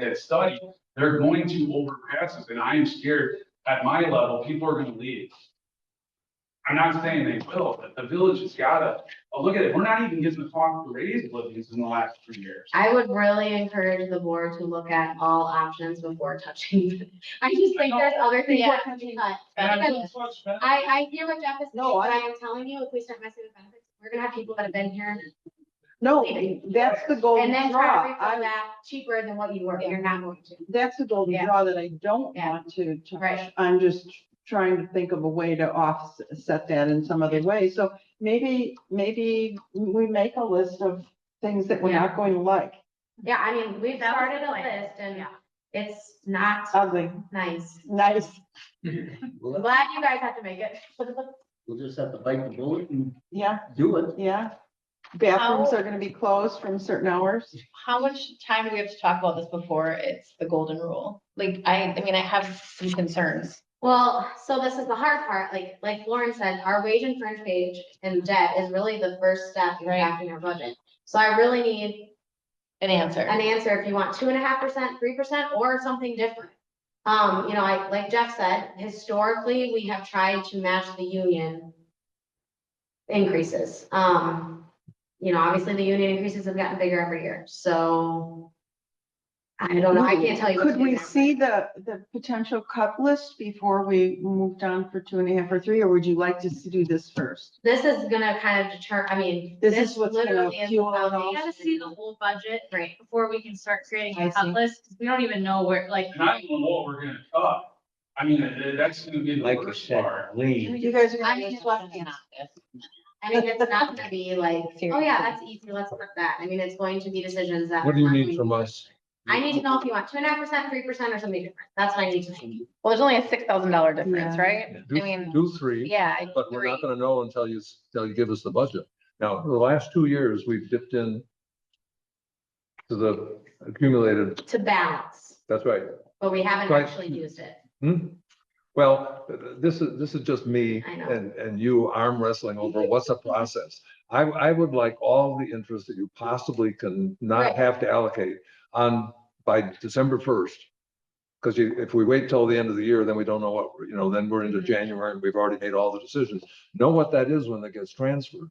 that study, they're going to overpass us, and I am scared, at my level, people are gonna leave. I'm not saying they will, but the village has gotta, oh, look at it, we're not even getting the cost to raise livings in the last three years. I would really encourage the board to look at all options before touching. I just think there's other things that can be cut. And I'm- I, I hear what Jeff is saying, No, but I- I am telling you, if we start messing with benefits, we're gonna have people that have been here No, that's the golden and then try to draw. refill I, that cheaper than what you were, but you're not going to. that's the golden Yeah. draw that I don't Yeah. want to touch. Right. I'm just trying to think of a way to offset that in some other way. So maybe, maybe we make a list of things that we're not going to like. Yeah, I mean, we've That was started a the plan. list and Yeah. it's not Ugly, nice. nice. Uh, I'm We'll glad you guys have to make it. we'll just have to bite the bullet and Yeah, do it. yeah. Bathrooms are gonna be closed from certain hours. How much time do we have to talk about this before it's the golden rule? Like, I, I mean, I have some concerns. Well, so this is the hard part, like, like Lauren said, our wage and fringe page and debt is really the first step in Right. crafting our budget. So I really need An answer. an answer if you want two and a half percent, three percent, or something different. Um, you know, I, like Jeff said, historically, we have tried to match the union increases. Um, you know, obviously, the union increases have gotten bigger every year, so I don't know, Oh, I can't tell you. what to Could do we there. see the, the potential cut list before we moved on for two and a half or three, or would you like us to do this first? This is gonna kind of deter, I mean. This is what's gonna literally is fuel how it all. they- We gotta see the whole budget Right. before we can start creating I a cut see. list, 'cause we don't even know where, like, And I don't know what we're gonna cut. I mean, uh, that's gonna be the Like you worst said, part. lean. You guys are I gonna mean, be it's swept in. I mean, it's not gonna be like, oh Seriously. yeah, that's easy, let's put that. I mean, it's going to be decisions that. What do you are need going- from us? I need to know if you want two and a half percent, three percent, or something different. That's what I need to know. Well, there's only a six thousand dollar difference, Yeah. right? I Do, mean, do three, yeah. I but we're not agree. gonna know until you, s- until you give us the budget. Now, the last two years, we've dipped in to the accumulated, to balance, that's right. but we haven't Right. actually used it. Hmm? Well, th- th- this is, this is just me I know. and, and you arm wrestling over what's a process. I, I would like all the interest that you possibly can Right. not have to allocate on, by December first. Because you, if we wait till the end of the year, then we don't know what, we're- you know, then we're Mm-hmm. into Mhm. January and we've already made all the decisions. Know what that is when it gets transferred.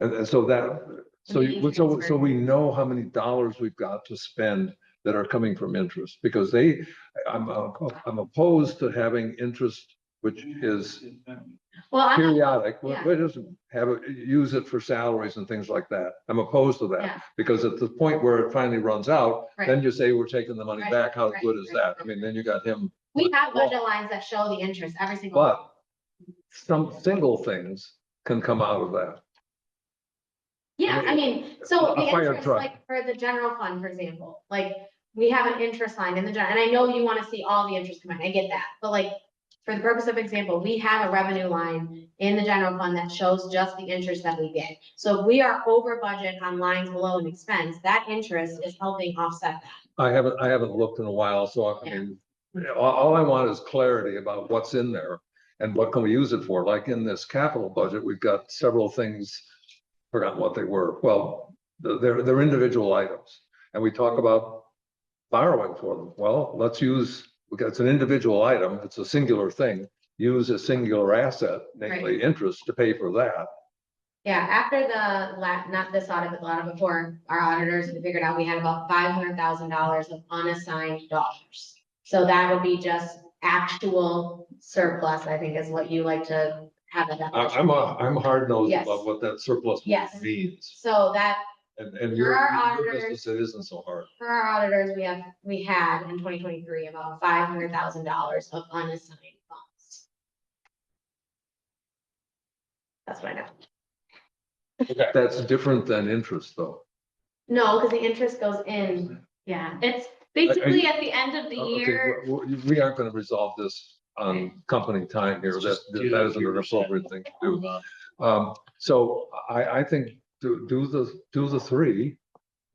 And, and so that, so When the you, so, interest so we know how many dollars we've got to spend that are coming from interest, because they, I'm, uh, I'm opposed to having interest, which is Well, I'm, not- periodic, we yeah. we just have, it- use it for salaries and things like that. I'm opposed to Yeah. that, because at the point where it finally runs out, then right. you say we're taking the money Right, back, how right, good is right, that? I mean, then you got him. we have budget lines that show the interest every single. But some single things can come out of that. Yeah, I mean, so A the fire interest, truck. like for the general fund, for example, like we have an interest line in the general, and I know you wanna see all the interest come in, I get that. But like, for the purpose of example, we have a revenue line in the general fund that shows just the interest that we get. So if we are over budget on lines below an expense, that interest is helping offset that. I haven't, I haven't looked in a while, so I Yeah. mean, all, all I want is clarity about what's in there and what can we use it for. Like in this capital budget, we've got several things, forgotten what they were. Well, th- they're, they're individual items. And we talk about borrowing for them. Well, let's use, because it's an individual item, it's a singular thing. Use a singular asset, namely interest, to pay for that. Yeah, after the la, not this audit, but the audit before, our auditors had figured out we had about five hundred thousand dollars of unassigned dollars. So that would be just actual surplus, I think is what you like to have a I, definition. I'm, a- I'm hard nosed Yes. about what that surplus Yes. means. So that, And, and your, For our your auditors- business, it isn't so hard. for our auditors, we have, we had in twenty twenty-three about five hundred thousand dollars of unassigned funds. That's what I know. That's different than interest, though. No, because the interest goes in, yeah. it's basically at the end of the Oh, Uh, Okay, year. we- we- we aren't gonna resolve this on company time here. That, Just do that isn't your an reset. appropriate thing to do. Um, so I, I think do, do the, do the three.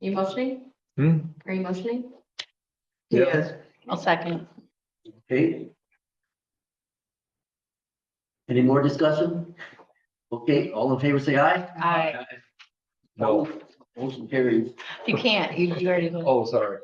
You motioning? Hmm? Are you motioning? Yeah. Yes. I'll second. Okay. Any more discussion? Okay, all in favor, say aye. I, No, Motion carries. you can't, you, you already. voted. oh, sorry.